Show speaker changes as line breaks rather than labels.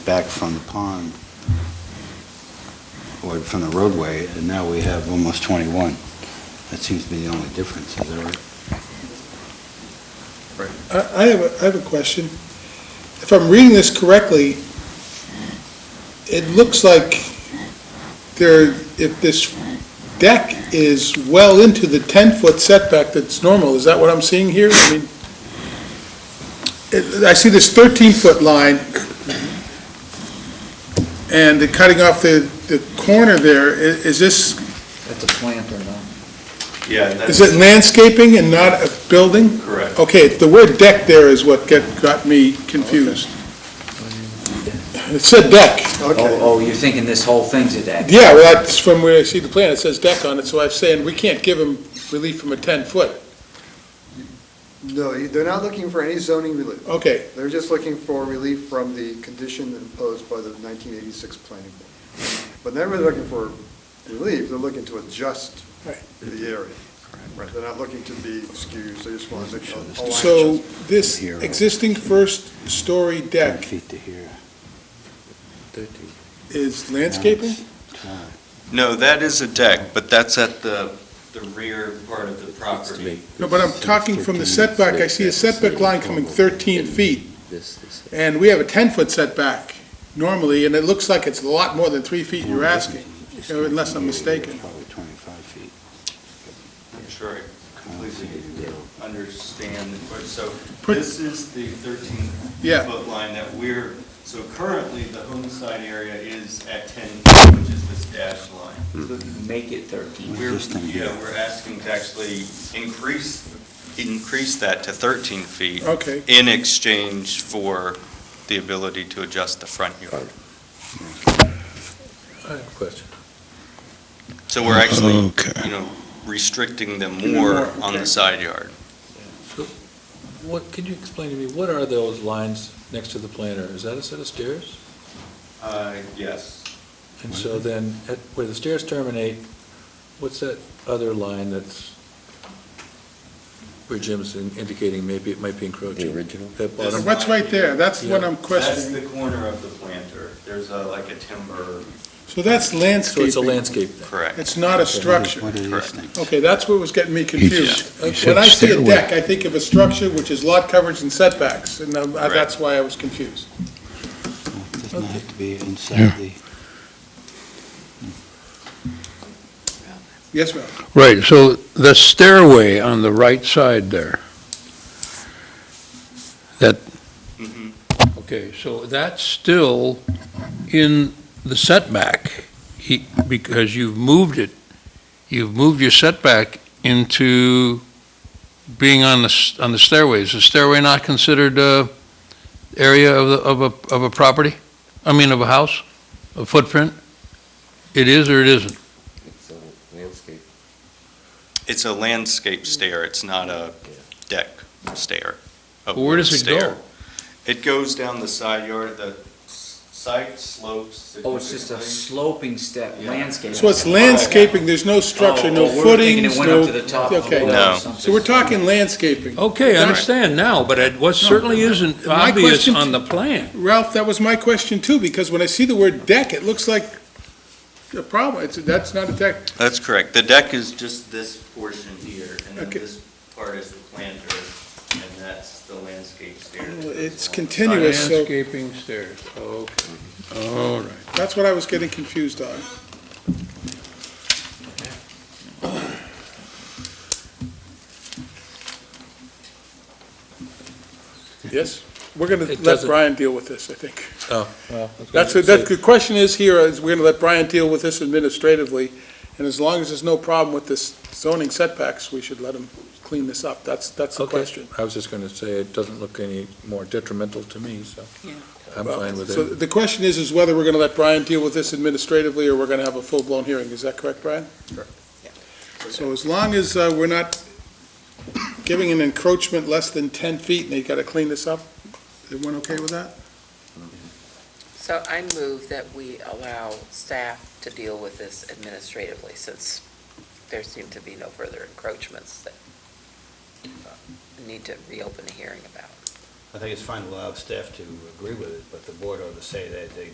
back from the pond, or from the roadway, and now we have almost 21. That seems to be the only difference, is that right?
I I have, a I have a question. If I'm reading this correctly, it looks like there, if this deck is well into the 10-foot setback that's normal, is that what I'm seeing here? I mean, it- I see this 13-foot line, and the cutting off the, the corner there, I- is this,
That's a planter, no?
Yeah,
is it landscaping and not a building?
correct.
Okay, the word deck there is what get- got me confused. It said deck.
Oh, oh, you're thinking this whole thing's a deck?
Yeah, well, that's from where I see the plan, it says deck on it, so I'm saying we can't give them relief from a 10-foot.
No, you- they're not looking for any zoning relief.
Okay,
They're just looking for relief from the condition imposed by the 1986 planning board. But they're really looking for relief, they're looking to adjust
Right.
the area. Right, they're not looking to be excused, they just want to make a- a line
so
adjustment.
this
Here.
existing first-story
10
deck
feet to here.
is landscaping?
No, that is a deck, but that's at the, the rear part of the property.
No, but I'm talking from the setback, I see a setback line coming 13 feet, and we have a 10-foot setback normally, and it looks like it's a lot more than three feet you're asking. Unless I'm mistaken.
Probably 25 feet.
I'm sure I completely understand the question. So
Put-
this is the
Yeah.
13-foot line that we're, so currently, the home side area is at 10 feet, which is this dashed line.
Make it 13.
We're,
This thing
yeah,
here.
we're asking to actually increase, increase that to 13 feet
Okay,
in exchange for the ability to adjust the front yard.
Question.
So we're actually,
Okay.
you know, restricting them
Give them
more
more,
on
okay.
the side yard.
What, could you explain to me, what are those lines next to the planter? Is that a set of stairs?
Uh, Yes.
And so then, at- where the stairs terminate, what's that other line that's, where Jim's in- indicating maybe it might be encroaching? The original? That bottom,
Uh, what's right there, that's what
Yeah.
I'm
That's
questioning.
the corner of the planter. There's a, like a timber.
So that's landscaping.
so it's a landscape then?
Correct.
It's not a
What
structure.
are these
Correct.
things?
Okay, that's what was getting me confused. Uh,
he said
When I see a
stairway.
deck, I think of a structure which is lot coverage and setbacks, and um, I-
Correct.
that's why I was confused.
Doesn't it have to be
Yeah.
inside the,
Yes, ma'am.
Right, so the stairway on the right side there, that,
Mhm.
okay, so that's still in the setback, he- because you've moved it, you've moved your setback into being on the, s- on the stairway. Is the stairway not considered uh area of, the of a, of a property? I mean, of a house, a footprint? It is or it isn't?
It's a landscape.
It's a landscape stair. It's not a deck stair. a
Where does it
wood
go?
stair. It goes down the side yard. The s- site slopes.
Oh, it's just a
significantly.
sloping step,
Yeah.
landscape.
So it's landscaping, there's no structure, no
Oh, oh, we were thinking
footings,
it went up
no...
to the top of the
Okay.
wall or
No.
something.
So we're talking landscaping.
Okay, I understand now, but it was certainly isn't
My
obvious
question-
on the plan.
Ralph, that was my question too, because when I see the word deck, it looks like a problem. It's, that's not a deck.
That's correct. The deck is just this portion here, and then
Okay.
this part is the planter, and that's the landscape stair. that
Well,
goes
it's
along the side.
continuous. so-
Landscaping stairs, okay. All right.
That's what I was getting confused on. Yes, we're going
It
to let
doesn't-
Brian deal with this, I think.
Well,
That's, that's, the question is here, is we're going to let Brian deal with this administratively, and as long as there's no problem with this zoning setbacks, we should let him clean this up. That's, that's the
Okay.
question.
I was just going to say, it doesn't look any more detrimental to me, so I'm
Well,
fine with
So
it.
the question is, is whether we're going to let Brian deal with this administratively, or we're going to have a full-blown hearing. Is that correct, Brian? Correct. So as long as uh, we're not giving an encroachment less than 10 feet, and they got to clean this up, everyone okay with that?
So I move that we allow staff to deal with this administratively, since there seem to be no further encroachments that uh, need to reopen a hearing about.
I think it's fine to allow staff to agree with it, but the board ought to say that they